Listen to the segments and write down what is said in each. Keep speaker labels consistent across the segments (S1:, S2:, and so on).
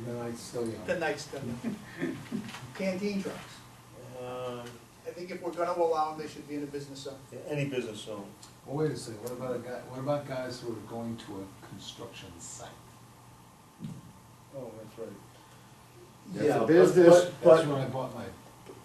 S1: night's still
S2: The
S1: young.
S2: night's done. Canteen trucks.
S3: Um,
S2: Uh, I think if we're gonna allow them, they should be in a business zone.
S3: yeah, Any business zone,
S1: Well, wait a second, what about a guy, what about guys who are going to a construction site?
S3: oh, that's right.
S1: That's
S4: Yeah,
S1: a
S4: but-
S1: business,
S4: but-
S1: that's
S4: but-
S1: when I bought my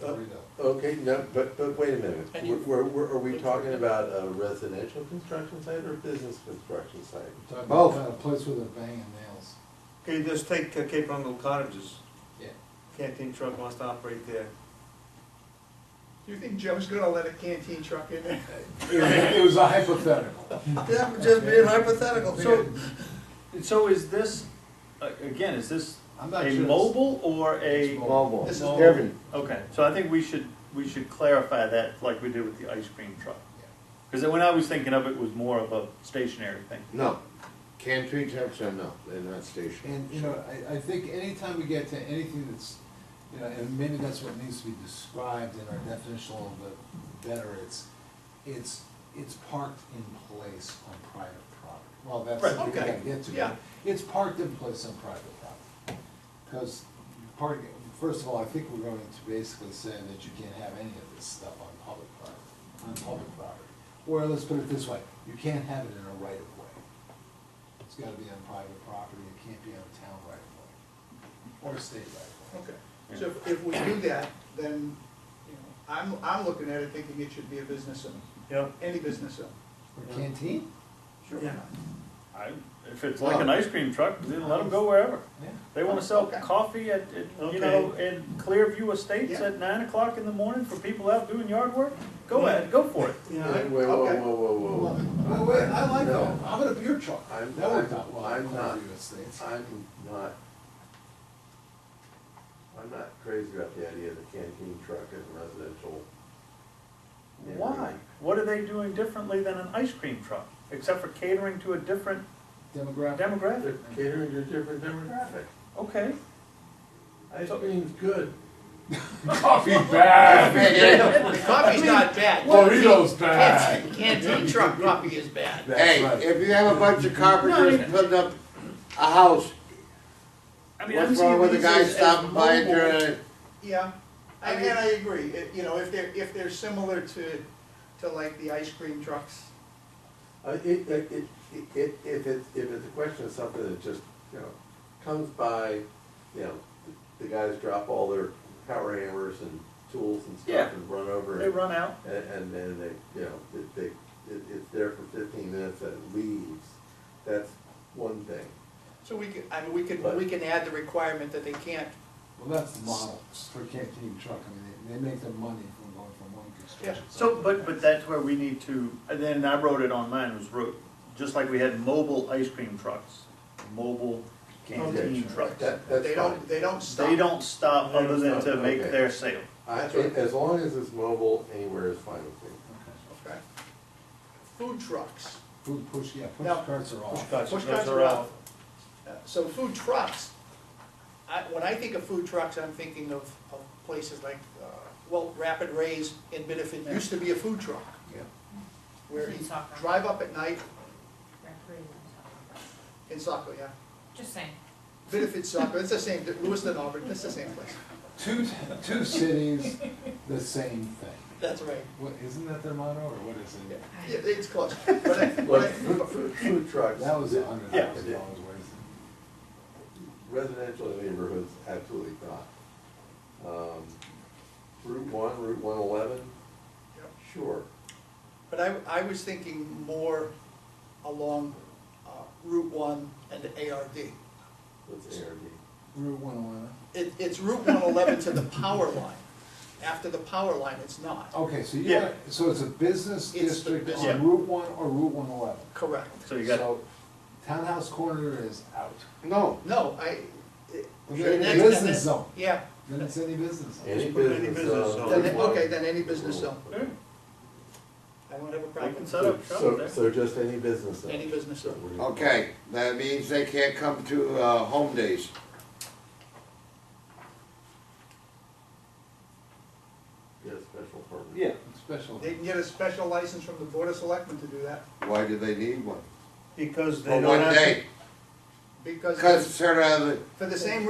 S1: burrito.
S4: Okay, no, but, but wait a minute,
S2: And you-
S4: we're, we're, are we talking about a residential construction site or a business construction site?
S1: I'm talking
S4: Both.
S1: about A place with a bang and nails.
S3: Okay, just take uh, Cape Rundle Cottages,
S1: Yeah.
S3: canteen truck wants to operate there.
S2: Do you think Joe's gonna let a canteen truck in there?
S1: It was a hypothetical.
S2: Yeah, I'm just being hypothetical.
S5: So, so is this, uh, again, is this
S1: I'm not
S5: a
S1: sure.
S5: mobile or a?
S1: It's mobile.
S2: This is
S5: Mobile.
S2: Irving.
S5: Okay, so I think we should, we should clarify that like we did with the ice cream truck.
S1: Yeah.
S5: Because when I was thinking of it, it was more of a stationary thing.
S4: No, canteen trucks are no, they're not stationary.
S1: And, you know, I, I think anytime we get to anything that's, you know, and maybe that's what needs to be described in our definition a little bit better, it's, it's, it's parked in place on private property. Well, that's
S5: Right,
S1: something we
S2: okay,
S1: gotta get to.
S2: yeah.
S1: It's parked in place on private property. Because part, first of all, I think we're going to basically say that you can't have any of this stuff on public property, on public property. Or let's put it this way, you can't have it in a right of way. It's gotta be on private property, it can't be on town right of way, or state right of way.
S2: Okay, so if- if we do that, then, you know, I'm, I'm looking at it thinking it should be a business zone,
S3: Yeah.
S2: any business zone.
S1: Or canteen?
S2: Sure.
S3: Yeah.
S5: I, if it's like an ice cream truck, then let them go wherever.
S1: Yeah.
S5: They wanna sell
S2: Okay.
S5: coffee at, at,
S3: Okay.
S5: you know, in Clearview Estates
S2: Yeah.
S5: at nine o'clock in the morning for people out doing yard work, go ahead, go for it.
S4: Wait, wait,
S3: Yeah,
S4: whoa, whoa,
S2: okay.
S4: whoa, whoa, whoa.
S1: Well, Oh, wait, I like
S4: No,
S1: that, how about a beer truck?
S4: I'm-
S1: That worked out
S4: I'm-
S1: well,
S4: I'm
S1: in
S4: not-
S1: Clearview Estates.
S4: I'm not, I'm not crazy about the idea of the canteen truck in a residential. neighborhood.
S5: Why? What are they doing differently than an ice cream truck, except for catering to a different
S1: Demographic,
S5: demographic?
S4: They're catering to a different demographic.
S5: Okay,
S4: Ice cream's good.
S1: coffee bad,
S2: Coffee's not bad.
S1: burritos bad.
S2: Canteen truck coffee is bad.
S4: Hey, if you have a bunch of carpenters putting up a house,
S5: I mean, I'm
S4: what's
S5: seeing
S4: wrong with a
S5: these
S4: guy
S5: as- as
S4: stopping by and
S5: mobile-
S4: turning it?
S2: Yeah, and, and I agree, It- you know, if they're, if they're similar to, to like the ice cream trucks,
S4: Uh, it, it, it, it, if it's, if it's a question of something that just, you know, comes by, you know, the guys drop all their power hammers and tools and
S5: Yeah.
S4: stuff and run over.
S5: They
S4: and-
S5: run out,
S4: And, and then they, you know, it- they, it, it's there for fifteen minutes and it leaves, that's one thing.
S2: so we could, I mean, we could, we can add the requirement that they can't,
S1: Well, that's the model for canteen truck, I mean, they, they make their money from going from one construction site.
S5: so,
S1: to the
S5: but, but
S1: next.
S5: that's where we need to, and then I wrote it on mine, was wrote, just like we had mobile ice cream trucks, mobile canteen
S4: Okay.
S5: trucks.
S4: That, that's
S2: they
S4: fine.
S2: don't, they don't stop.
S5: They don't
S3: They
S5: stop
S3: don't
S5: other than
S4: stop,
S5: to make
S4: okay.
S5: their sale.
S4: I,
S2: That's right.
S4: as long as it's mobile, anywhere is fine with me.
S2: Okay. Food trucks.
S1: Food push, yeah, push
S2: No.
S1: carts are off.
S3: Push
S2: Push
S3: carts
S2: carts
S3: are
S2: are
S3: out.
S2: Uh, So food trucks, I, when I think of food trucks, I'm thinking of, of places like, uh, well, Rapid Rays in Benefit used to be a food truck,
S1: Yeah.
S2: where you
S6: In Saco.
S2: drive up at night
S6: Recreating.
S2: in Saco, yeah.
S6: Just saying.
S2: Benefit Saco, it's the same, Lewiston, Auburn, it's the same place.
S1: Two, two cities, the same thing.
S2: That's right.
S1: What, isn't that their motto, or what is
S2: Yeah,
S1: it?
S2: yeah, it's close. But I- but
S4: Like,
S2: I-
S4: food, food- food trucks.
S1: That was a hundred
S5: Yeah.
S1: thousand dollars worth.
S4: Residential neighborhoods, absolutely not. Um, Route one, Route one eleven,
S2: Yep.
S4: sure.
S2: But I, I was thinking more along uh, Route One and the ARD.
S4: That's ARD.
S1: Route one eleven.
S2: It, it's Route one eleven to the power line. After the power line, it's not.
S1: Okay, so you,
S5: Yeah.
S1: want- so it's a business
S2: It's the
S1: district
S2: business-
S1: on
S5: Yeah.
S1: Route one or Route one eleven?
S2: Correct.
S5: So you got,
S1: So Townhouse Corner is out,
S4: No.
S2: No, I. it-
S1: Okay,
S2: and that's-
S1: business
S2: and that's-
S1: zone.
S2: Yeah,
S1: then it's any business.
S4: Any
S3: put any
S4: business
S3: business
S4: zone.
S3: zone.
S2: Then- okay, then any business zone.
S5: yeah,
S2: I don't have a
S5: they
S2: problem.
S5: can
S2: with
S5: set up shop
S4: So,
S5: there.
S4: so just any business zone.
S2: Any business zone.
S7: Okay, that means they can't come to, uh, home days.
S4: Get a special permit.
S5: Yeah.
S1: Special.
S2: They can get a special license from the Board of Selectmen to do that
S7: Why do they need one?
S3: because they
S7: For
S3: don't
S7: one
S3: have to.
S7: day,
S2: because
S7: cause it's sort of the
S2: for the same